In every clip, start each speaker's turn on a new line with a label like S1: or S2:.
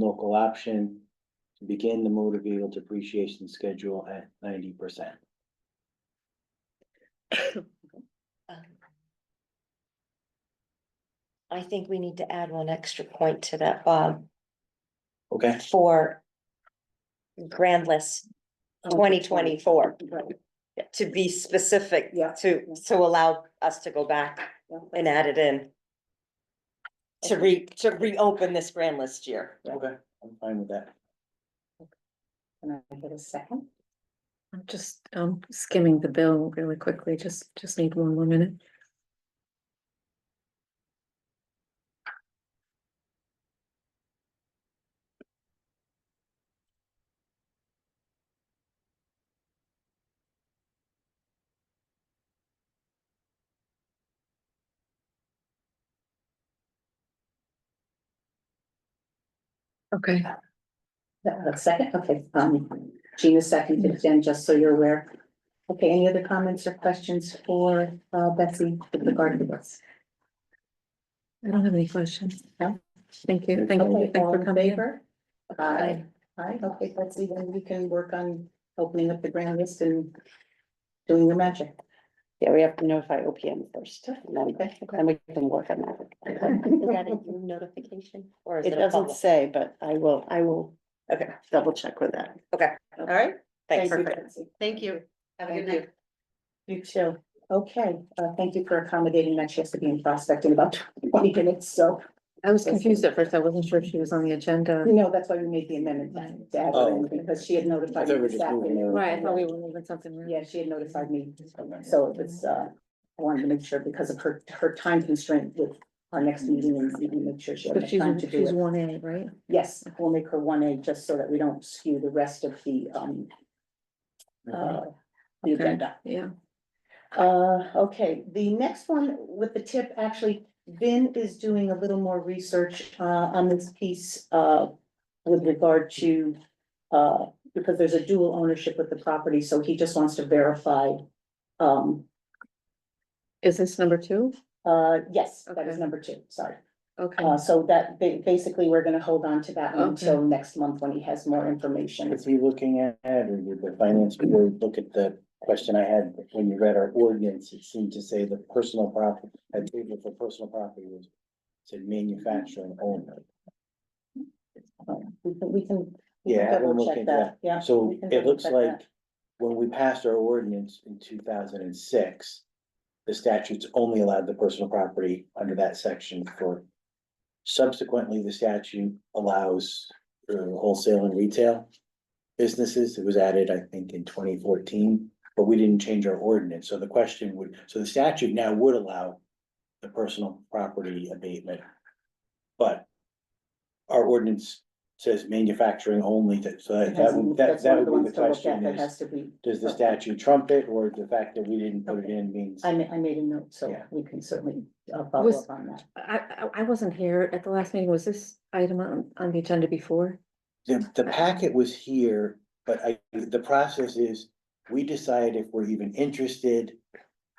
S1: local option to begin the motor vehicle depreciation schedule at ninety percent.
S2: Um, I think we need to add one extra point to that, Bob,
S1: Okay,
S2: for grand list
S3: Oh,
S2: twenty twenty-four,
S3: Right.
S2: to be specific,
S3: Yeah.
S2: to, to allow us to go back
S3: Yeah.
S2: and add it in. To re, to reopen this grand list year.
S1: okay, I'm fine with that.
S3: Can I get a second?
S4: I'm just um skimming the bill really quickly, just just need one more minute. Okay,
S3: A second, okay, um, Gina seconded, Jen, just so you're aware. Okay, any other comments or questions for uh Betsy with regard to this?
S4: I don't have any questions.
S3: No?
S4: Thank you, thank you,
S3: Okay,
S4: thanks
S3: all
S4: for
S3: in
S4: coming. in.
S3: favor? Aye, aye, okay, Betsy, then we can work on opening up the grand list and doing your magic.
S5: Yeah, we have to notify OPM first, and then,
S3: Okay, okay.
S5: then we can work on that.
S2: Is that a new notification or is
S5: It
S2: it a
S5: doesn't
S2: public?
S5: say, but I will, I will
S2: Okay,
S5: double check with that.
S2: all right, thanks.
S3: Thank you, Betsy.
S5: Thank you.
S3: Have a good night. You too. Okay, uh, thank you for accommodating that she has to be in prospect in about twenty minutes, so,
S4: I was confused at first, I wasn't sure if she was on the agenda.
S3: you know, that's why we made the
S4: Mm-hmm.
S3: amendment to add her in,
S1: Oh.
S3: because she had
S1: I
S3: notified
S1: thought we
S3: me
S1: were
S3: this
S1: just moving
S3: afternoon.
S1: it.
S4: Right, I thought we were moving something. around.
S3: Yeah, she had notified me, so it was, uh, I wanted to make sure because of her, her time constraint with our next meeting and and make sure she had
S4: But
S3: enough time to
S4: she's,
S3: do
S4: she's
S3: it.
S4: one A, right?
S3: Yes, we'll make her one A just so that we don't skew the rest of the, um, uh, the
S4: Okay.
S3: agenda.
S4: Yeah.
S3: Uh, okay, the next one with the tip, actually, Vin is doing a little more research, uh, on this piece, uh, with regard to, uh, because there's a dual ownership with the property, so he just wants to verify. Um,
S4: Is this number two?
S3: uh, yes, that is
S4: Okay.
S3: number two, sorry.
S4: Okay,
S3: Uh, so that, ba- basically, we're gonna hold on to that one
S4: Okay.
S3: until next month when he has more information.
S1: Is he looking at, or did the finance board look at the question I had when you read our ordinance, it seemed to say the personal property, I think if the personal property was said manufacturing only.
S3: We can, we can. we can
S1: Yeah, I'm
S3: double check
S1: looking at
S3: Yeah.
S1: that. So
S3: we can
S1: it
S3: double
S1: looks
S3: check that.
S1: like when we passed our ordinance in two thousand and six, the statutes only allowed the personal property under that section for subsequently, the statute allows uh, wholesale and retail businesses. It was added, I think, in twenty fourteen, but we didn't change our ordinance. So the question would, so the statute now would allow the personal property abatement. But our ordinance says manufacturing only, that- so that, that would, that
S3: That's one
S1: that
S3: of the
S1: would be
S3: ones
S1: the
S3: to look at
S1: question
S3: that
S1: is,
S3: has to be,
S1: does the statute trump it or the fact that we didn't put it in means?
S3: I ma- I made a note, so
S1: Yeah.
S3: we can certainly uh, follow
S4: Was-
S3: up on that.
S4: I, I, I wasn't here at the last meeting, was this item on, on the agenda before?
S1: The, the packet was here, but I, the process is, we decide if we're even interested.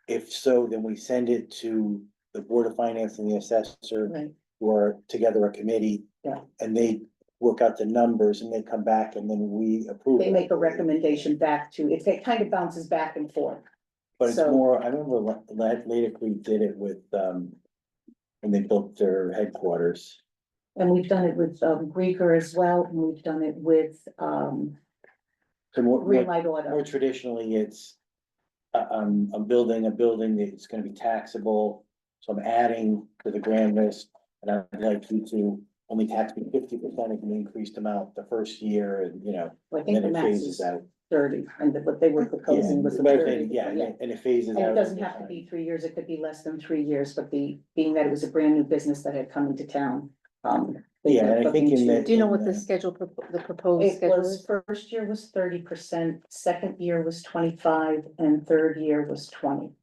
S1: If so, then we send it to the Board of Finance and the assessor,
S3: Right,
S1: who are together a committee.
S3: Yeah.
S1: And they work out the numbers and they come back and then we approve.
S3: they
S1: it.
S3: make a recommendation back to, it it kind of bounces back and forth.
S1: But it's
S3: so-
S1: more, I remember La- La- Lady Creek did it with, um, when they built their headquarters.
S3: And we've done it with um Grieger as well, and we've done it with um
S1: So more- more
S3: Green Light
S1: More
S3: Auto.
S1: traditionally, it's, uh, um, I'm building a building that's gonna be taxable, so I'm adding to the grand list. And I'd like you to only tax me fifty percent of the increased amount the first year and, you know,
S3: I
S1: and
S3: think
S1: then
S3: the
S1: it
S3: max
S1: phases
S3: is
S1: out.
S3: thirty, and that what they were
S1: Yeah,
S3: proposing was
S1: but I think-
S3: thirty.
S1: Yeah, and it- and it phases out.
S3: And it doesn't
S1: over
S3: have to
S1: time.
S3: be three years, it could be less than three years, but the, being that it was a brand new business that had come into town, um. they
S1: Yeah,
S3: were
S1: and I think in
S3: looking to-
S1: the-
S4: Do you know what the schedule, propo- the proposed
S3: It
S4: schedule
S3: was,
S4: is?
S3: first year was thirty percent, second year was twenty-five, and third year was twenty.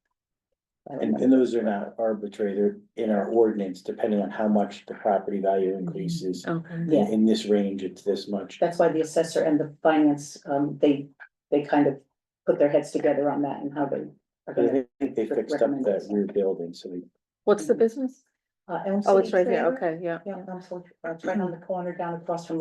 S3: I don't
S1: And,
S3: know.
S1: and those are not arbitrary, they're in our ordinance, depending on how much the property value increases.
S4: Okay,
S3: Yeah.
S1: In this range, it's this much.
S3: That's why the assessor and the finance, um, they, they kind of put their heads together on that and how they. are
S1: But
S3: gonna
S1: I think they fixed up that
S3: Recommended.
S1: rear building, so they
S4: what's the business?
S3: Uh, Elm
S4: Oh, it's
S3: City
S4: right here,
S3: Trailer.
S4: okay, yeah.
S3: Yeah, Elm City, uh, it's right on the corner down across from